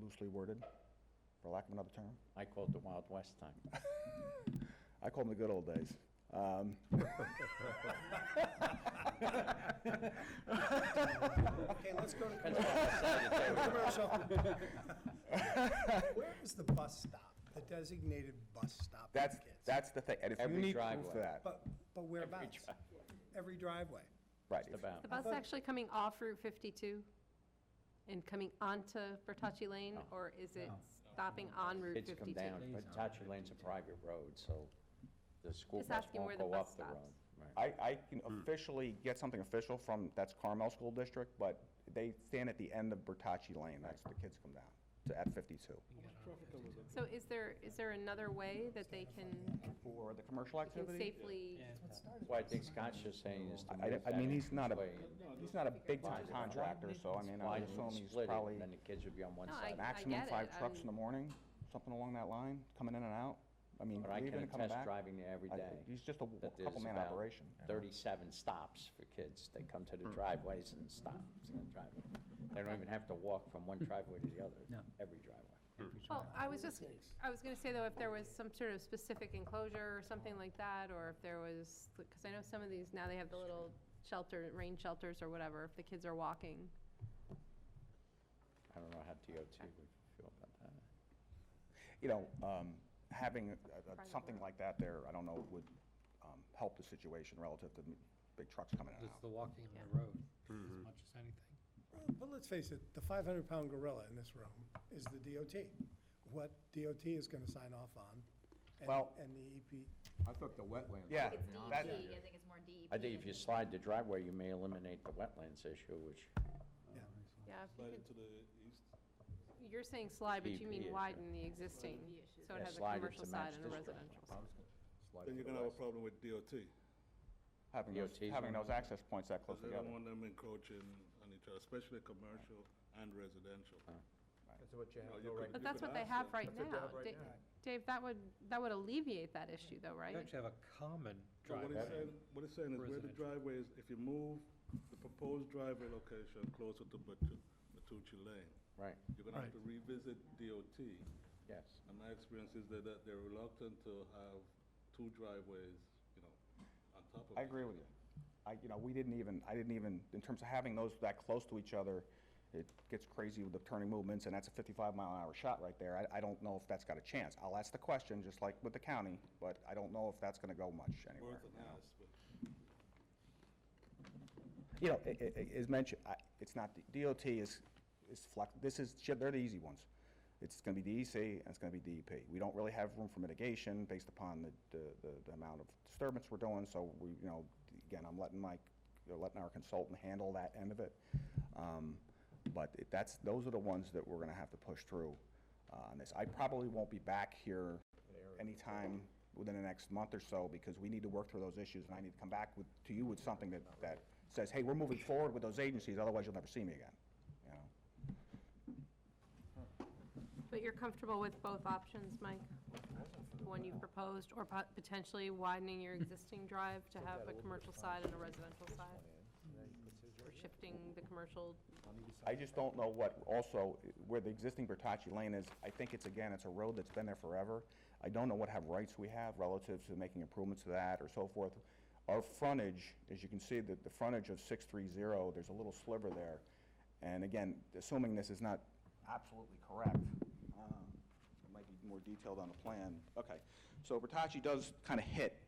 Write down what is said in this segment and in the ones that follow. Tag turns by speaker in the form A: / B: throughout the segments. A: loosely worded, for lack of another term.
B: I call it the Wild West time.
A: I call them the good old days. Um,
C: Okay, let's go to
B: Depends on what side of the table.
C: commercial. Where is the bus stop, the designated bus stop? for
A: That's,
C: kids?
A: that's the thing, and if you
B: Every
A: need proof
B: driveway.
A: of that,
C: But, but whereabouts?
B: driveway.
C: Every driveway.
A: right.
B: Just
A: if-
B: about.
D: The bus actually coming off Route 52 and coming onto Bertocci Lane, or is it stopping on Route
B: Kids come
D: 52?
B: down, but Tatcher Lane's a private road, so the school
D: Just
B: bus
D: asking
B: won't
D: where the
B: go
D: bus
B: up the road.
D: stops.
B: Right.
A: I, I can officially get something official from, that's Carmel School District, but they stand at the end of Bertocci Lane, that's the kids come down, to, at 52.
D: So is there, is there another way that they can
A: For the commercial
D: can
A: activity?
D: safely?
B: That's why I think Scott's just saying is
A: I,
B: to move
A: I-
B: that
A: I mean, he's not
B: way.
A: a, he's not a big-time
B: Widen it.
A: contractor, so I mean, I
B: Widen
A: assume
B: and
A: he's
B: split it, and
A: probably
B: then the kids would be on one
D: No,
B: side.
A: maximum
D: get
A: five
D: it,
A: trucks in
D: I'm-
A: the morning, something along that line, coming in and out. I mean,
B: But I
A: leaving and
B: can
A: coming back.
B: attest driving there every
A: I-
B: day.
A: He's just a
B: that there's
A: couple-man
B: about
A: operation.
B: Thirty-seven stops for kids. They come
A: Hmm.
B: to the driveways and stop in the driveway. They don't even have to walk from one driveway to the other, every driveway.
D: Well, I was just, I was going to say, though, if there was some sort of specific enclosure or something like that, or if there was, because I know some of these, now they have the little shelter, rain shelters or whatever, if the kids are walking.
B: I don't know how DOT would feel about that.
A: You know, um, having a- a-
D: Private
A: something
D: road.
A: like that there, I don't know, would um, help the situation relative to m- big trucks coming in and
E: It's
A: out.
E: the walking on
D: Yeah.
E: the road as much as anything.
C: But let's face it, the 500-pound gorilla in this room is the DOT. What DOT is going to sign off on, and-
A: Well-
C: and the E EP,
F: I thought the wetlands.
A: Yeah.
G: It's
A: that-
G: DEP, I think it's more DEP.
B: I think if you slide the driveway, you may eliminate the wetlands issue, which
C: yeah.
D: Yeah, if you
H: Slide
D: could-
H: it to the east.
D: you're saying slide, but you
B: DEP issue.
D: mean widen the existing, so it
B: Yeah,
D: has a
B: slide it
D: commercial
B: to match
D: side and a
B: this driveway.
D: residential side.
H: Then you're gonna have a problem with DOT.
A: Having those,
B: DOT's
A: having those
B: on-
A: access points that close
H: Because they don't
A: together.
H: want them encroaching on each other, especially commercial and residential.
A: Uh-huh.
F: That's what you
H: No,
F: have,
H: you
F: though,
H: could-
F: right?
D: But
H: you
D: that's
H: could
D: what they
H: ask
D: have
H: them.
D: right
F: That's what they have
D: now.
F: right
D: Da-
F: now.
D: Dave, that would, that would alleviate that issue, though,
E: You
D: right?
E: actually have a common
H: So what it's
E: driveway.
H: saying, what it's saying is where the
E: Residential.
H: driveway is, if you move the proposed driveway location closer to Batu- Batucci Lane,
B: Right,
H: you're gonna have to revisit DOT.
B: yes.
H: And my experience is that- that they're reluctant to have two driveways, you know, on top of.
A: I agree with you. I, you know, we didn't even, I didn't even, in terms of having those that close to each other, it gets crazy with the turning movements, and that's a 55 mile an hour shot right there. I, I don't know if that's got a chance. I'll ask the question, just like with the county, but I don't know if that's gonna go much anywhere.
H: Worth an
A: you know?
H: ask, but
A: you know, i- i- i- as mentioned, I- it's not, the DOT is, is flex, this is, they're the easy ones. It's going to be DEC and it's going to be DEP. We don't really have room for mitigation based upon the- the, the, the amount of disturbance we're doing, so we, you know, again, I'm letting my, you know, letting our consultant handle that end of it. Um, But it- that's, those are the ones that we're going to have to push through uh, on this. I probably won't be back here anytime within the next month or so, because we need to work through those issues, and I need to come back with, to you with something that, that says, hey, we're moving forward with those agencies, otherwise you'll never see me again, you know?
D: But you're comfortable with both options, Mike? The one you proposed, or pot- potentially widening your existing drive to have a commercial side and a residential side? Or shifting the commercial,
A: I just don't know what, also, where the existing Bertocci Lane is, I think it's, again, it's a road that's been there forever. I don't know what have rights we have relative to making improvements to that or so forth. Our frontage, as you can see, the, the frontage of 630, there's a little sliver there. And again, assuming this is not absolutely correct, um, it might be more detailed on the plan. Okay, so Bertocci does kind of hit,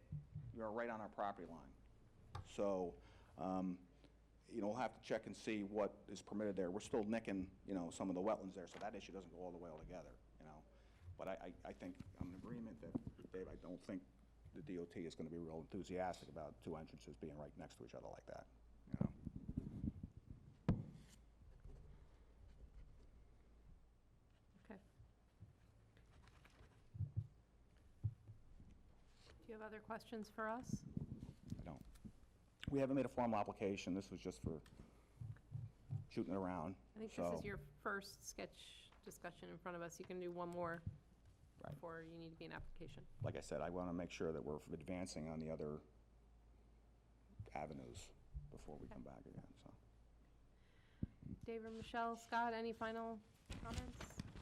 A: you're right on our property line. So, um, you know, we'll have to check and see what is permitted there. We're still nicking, you know, some of the wetlands there, so that issue doesn't go all the way altogether, you know? But I, I, I think, I'm in agreement that, Dave, I don't think the DOT is gonna be real enthusiastic about two entrances being right next to each other like that, you know?
D: okay. Do you have other questions for us?
A: I don't. We haven't made a formal application, this was just for shooting it around,
D: I think this is
A: so-
D: your first sketch discussion in front of us. You can do one more
A: Right.
D: before you need to be an application.
A: Like I said, I wanna make sure that we're advancing on the other avenues before we come back again, so.
D: Dave or Michelle, Scott, any final comments?